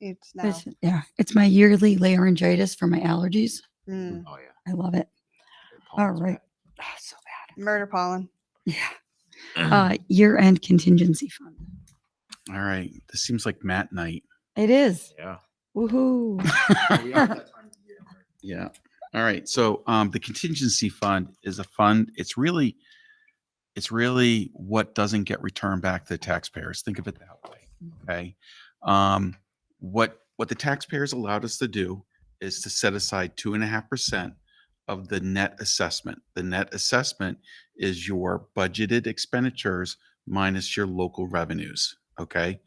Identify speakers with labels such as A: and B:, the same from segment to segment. A: It's now.
B: It's- Yeah, it's my yearly laryngitis for my allergies.
A: Mm,
C: Oh, yeah.
B: I love it. All
C: Pollen's
B: right.
C: bad.
B: Ah, so bad.
A: murder pollen.
B: Yeah. Uh, year-end contingency fund.
D: All right. This seems like Matt night.
B: It is.
C: Yeah.
B: Woohoo.
D: Yeah. All right. So um, the contingency fund is a fund. It's really, it's really what doesn't get returned back to the taxpayers. Think of it that way. Okay. Um, what what the taxpayers allowed us to do is to set aside two and a half percent of the net assessment. The net assessment is your budgeted expenditures minus your local revenues. Okay.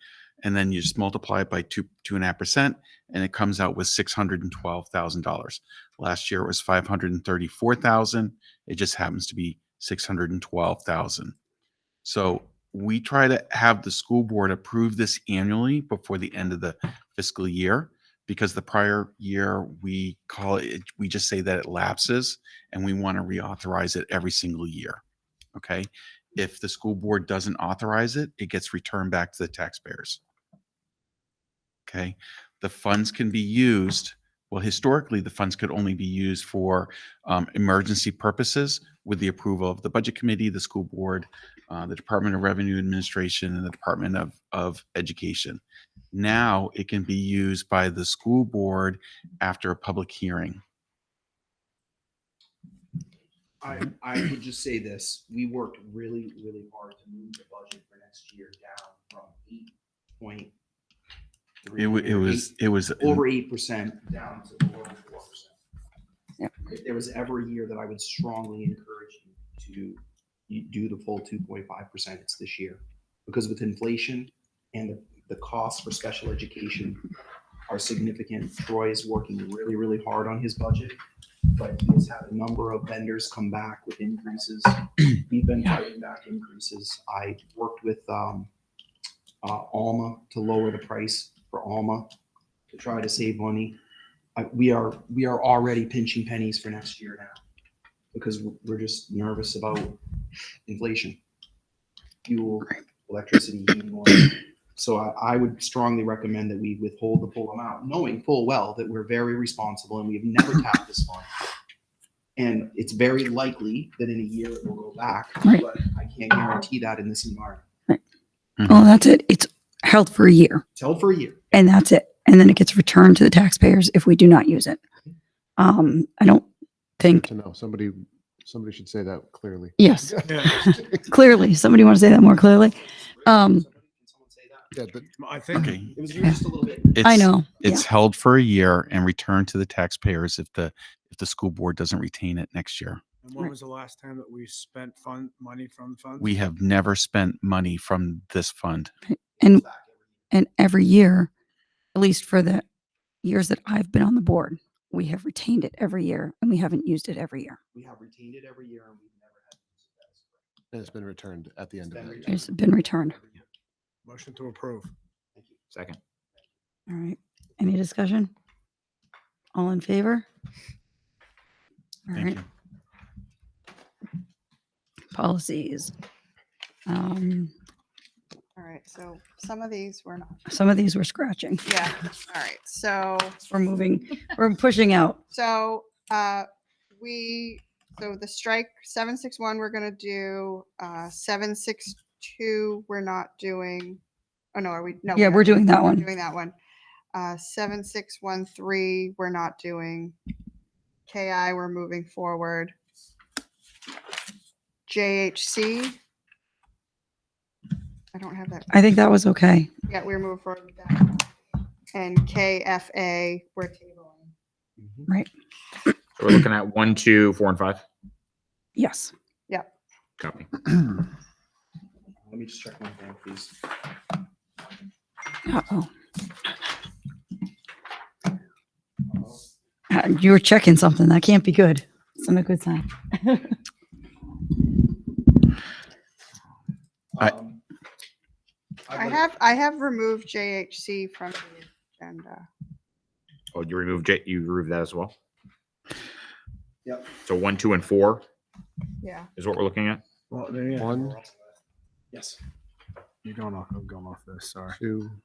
D: And then you just multiply it by two two and a half percent, and it comes out with six hundred and twelve thousand dollars. Last year it was 534,000. It just happens to be 612,000. So we try to have the school board approve this annually before the end of the fiscal year because the prior year we call it, we just say that it lapses and we want to reauthorize it every single year. Okay. If the school board doesn't authorize it, it gets returned back to the taxpayers. Okay. The funds can be used well, historically, the funds could only be used for um, emergency purposes with the approval of the Budget Committee, the School Board, uh, the Department of Revenue Administration, and the Department of, of Education. Now it can be used by the school board after a public hearing.
E: I,
D: Mm-hmm.
E: I would just say this, we worked really, really hard to move the budget for next year down from eight point three.
D: It wa- it was, it was,
E: Over eight percent down to below four
B: Yep.
E: percent. If there was ever a year that I would strongly encourage you to you do the full two point five percent, it's this year. Because with inflation and the, the costs for special education are significant. Troy is working really, really hard on his budget but he's had a number of vendors come back with increases. We've been fighting back increases. I worked with um, uh, Alma to lower the price for Alma to try to save money. I- We are, we are already pinching pennies for next year now because we're just nervous about inflation, fuel, electricity. heating oil. So I, I would strongly recommend that we withhold the full amount, knowing full well that we're very responsible and we have never tapped this fund. And it's very likely that in a year it will go back,
B: Right.
E: but I can't guarantee that in this environment.
B: Well, Oh, that's it. It's held for a year
E: Tell for a year.
B: and that's it. And then it gets returned to the taxpayers if we do not use it. Um, I don't think,
F: to know. Somebody, somebody should say that clearly.
B: yes, clearly, somebody want to say that more clearly? Um,
E: Can someone say that?
F: Yeah, but
C: I think
D: okay.
E: It was just a little bit.
B: I
D: It's-
B: know. Yeah.
D: It's held for a year and returned to the taxpayers if the, if the school board doesn't retain it next year.
G: And when
B: Right.
G: was the last time that we spent fund, money from funds?
D: We have never spent money from this fund.
B: And And every year, at least for the years that I've been on the board, we have retained it every year and we haven't used it every year.
E: We have retained it every year and we've never had. to use it. That is correct.
F: it's been returned at the
E: It's
F: end of
E: been
F: that.
E: returned.
B: It's been returned.
G: Motion to approve.
C: Second.
B: All right. Any discussion? All in favor? All
D: Thank
B: right,
D: you.
B: policies. Um,
A: All right. So some of these
B: Mm.
A: were not.
B: some of these we're scratching.
A: Yeah. All right. So,
B: We're moving, we're pushing out.
A: so, uh, we, so the strike seven, six, one, we're going to do, uh, seven, six, two, we're not doing. Oh, no, are we? No. we
B: Yeah,
A: are.
B: we're doing that
A: We're
B: one.
A: Doing that one. Uh, seven, six, one, three, we're not doing. KI, we're moving forward. JHC. I don't have that.
B: I think that was okay.
A: Yeah, we're moving forward with that. And KFA, we're tabling.
C: So we're looking at one, two, four, and five.
B: Yes.
C: Copy.
E: Let me just check one thing, please.
B: Uh-oh. Uh, You were checking something. That can't be good. It's not a good sign.
D: I-
E: Um,
A: I
E: would-
A: have, I have removed JHC from the agenda.
C: Oh, you removed J, you removed that as well?
E: Yep.
C: So one, two, and four
A: Yeah.
C: is what we're looking at?
G: Well, then, yeah.
F: One,
E: Yes.
G: You're going off, I'm going off this, sorry.
F: two,